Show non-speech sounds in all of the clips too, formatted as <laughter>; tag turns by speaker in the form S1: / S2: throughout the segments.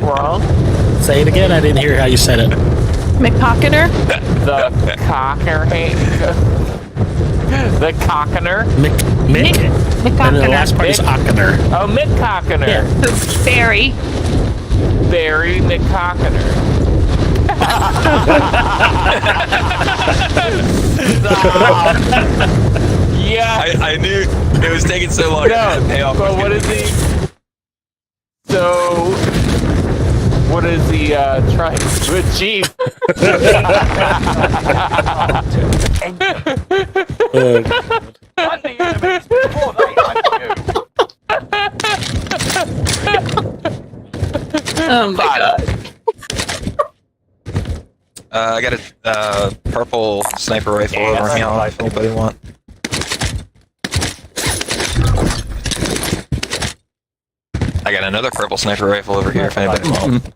S1: wrong?
S2: Say it again. I didn't hear how you said it.
S3: McPocketer?
S1: The cocker the cockiner.
S2: Mick. Mick. And then the last
S3: McPocketer.
S2: part is
S1: Mick.
S2: Ockener.
S1: Oh, Mick Cockiner.
S2: Yeah.
S3: Barry.
S1: Barry Mick Cockiner. Stop. Yeah.
S4: I, I knew it was taking so long. I had to
S1: <laughs>
S4: pay
S1: No.
S4: off
S1: So
S4: my
S1: what is he? So what is he uh, trying to achieve? <laughs>
S2: Uh,
S3: Oh my god.
S4: Uh, I got a uh, purple sniper rifle over here. If anybody want? I got another purple sniper rifle over here. If anybody wants.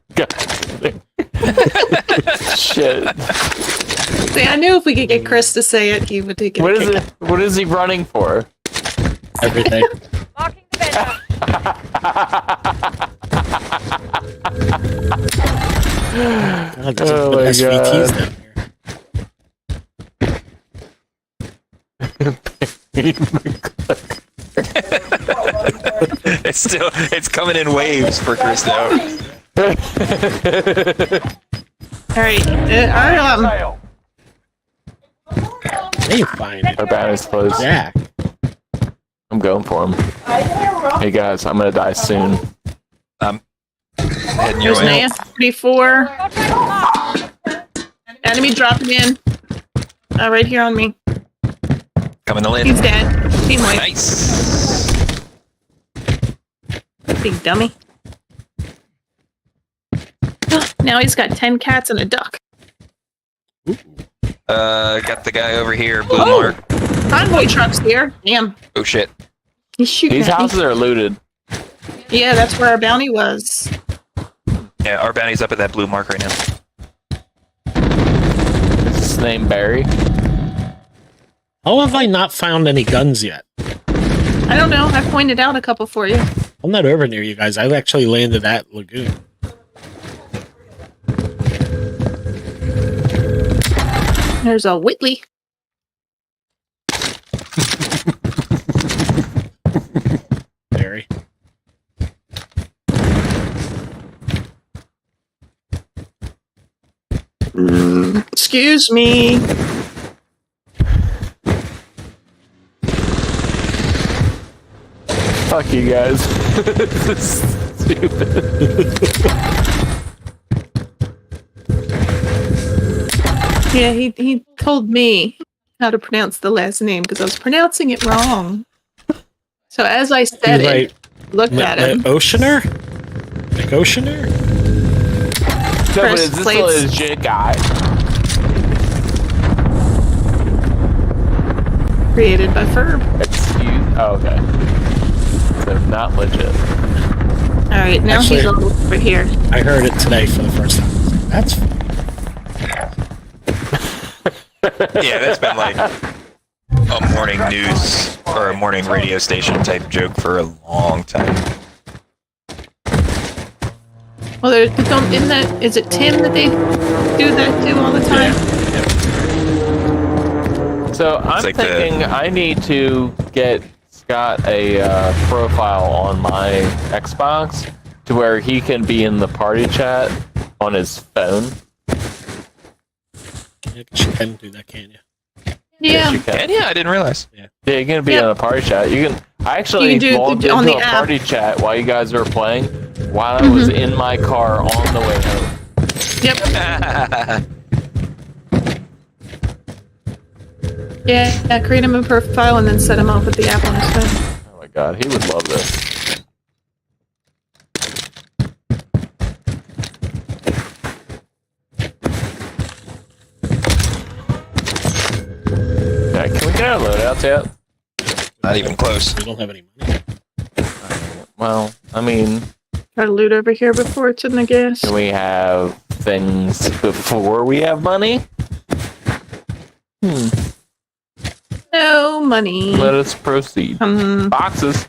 S4: <laughs>
S1: Shit.
S3: See, I knew if we could get Chris to say it, he would take it.
S1: What is it? What is he running for?
S2: everything.
S5: Locking the vent up.
S2: God, there's
S1: Oh
S2: some
S1: my
S2: SVTs
S1: God.
S2: down here.
S4: it's still it's coming in waves for Chris now.
S3: All right. Uh, our, um,
S2: They find it.
S1: Our banner's closed.
S2: Yeah.
S1: I'm going for him. Hey guys, I'm gonna die soon.
S4: I'm heading your
S3: there's an
S4: way.
S3: AS 34. Enemy dropping in. Uh, right here on me.
S4: Coming to
S3: He's
S4: land.
S3: dead. Team wipe.
S4: Nice.
S3: Big dummy. <gasps> now he's got 10 cats and a duck.
S4: Uh, got the guy over here. Blue
S3: Oh.
S4: mark.
S3: Convoy truck's here. Damn.
S4: Oh shit.
S3: He's shooting
S1: These
S3: at me.
S1: houses are looted.
S3: Yeah, that's where our bounty was.
S4: Yeah, our bounty's up at that blue mark right now.
S1: Is his name Barry?
S2: How have I not found any guns yet?
S3: I don't know. I pointed out a couple for you.
S2: I'm not over near you guys. I actually landed at Lagoon.
S3: There's a Whitley.
S2: Barry.
S3: Excuse me.
S1: Fuck you guys. this is stupid.
S3: Yeah, he, he told me how to pronounce the last name because I was pronouncing it wrong. So as I said
S2: You're
S3: it, looked
S2: Le-
S3: at
S2: Le-
S3: him.
S2: Oceaner? Like Oceaner?
S1: No, but
S3: Press
S1: is this a
S3: plates.
S1: legit guy?
S3: Created by Ferb.
S1: Excuse. Oh, okay. So not legit.
S3: All right, now he's
S2: Actually-
S3: all over here.
S2: I heard it today for the first time. I was like, That's
S4: Yeah, that's been like a morning news or a morning radio station type joke for a long time.
S3: Well, there, don't, isn't that, is it Tim that they do that to all the time?
S1: So I'm
S4: like the-
S1: thinking I need to get Scott a uh, profile on my Xbox to where he can be in the party chat on his phone.
S2: you can do that, can you?
S3: Yeah.
S1: you can.
S4: yeah, I didn't realize.
S1: Yeah, you're gonna be
S3: Yep.
S1: on a party chat. You can. I actually
S3: You can do-
S1: logged
S3: do- on
S1: into
S3: the
S1: a
S3: app. Mm-hmm.
S1: party chat while you guys were playing, while I was in my car on the way home.
S3: Yep.
S4: That's
S3: Yeah, yeah, create him a profile and then set him off with the app on his phone.
S1: Oh my god, he would love this. Yeah, can we get our loadouts yet?
S4: Not even close.
S2: We don't have any money.
S1: Well, I mean,
S3: Got loot over here before it's in the gas.
S1: can we have things before we have money? Hmm.
S3: No money.
S1: Let us proceed.
S3: Um, <laughs>
S1: Boxes.